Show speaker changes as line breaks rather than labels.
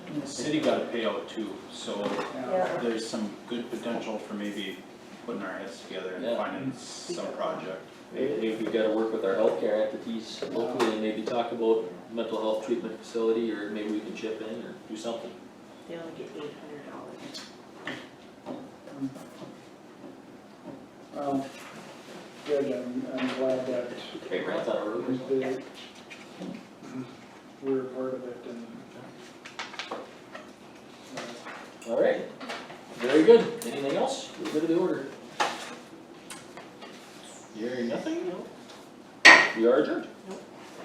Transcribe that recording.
in the
City got a payout too, so
Yeah.
Yeah.
there's some good potential for maybe putting our heads together and
Yeah.
finding some project.
Maybe we've gotta work with our healthcare entities locally and maybe talk about mental health treatment facility, or maybe we can chip in or do something.
They only get eight hundred dollars.
Um, Good, I'm, I'm glad that
Great grant on our road.
the- we're a part of it and. uh,
Alright, very good, anything else, we're good to the order. Hearing nothing, no? We are adjourned.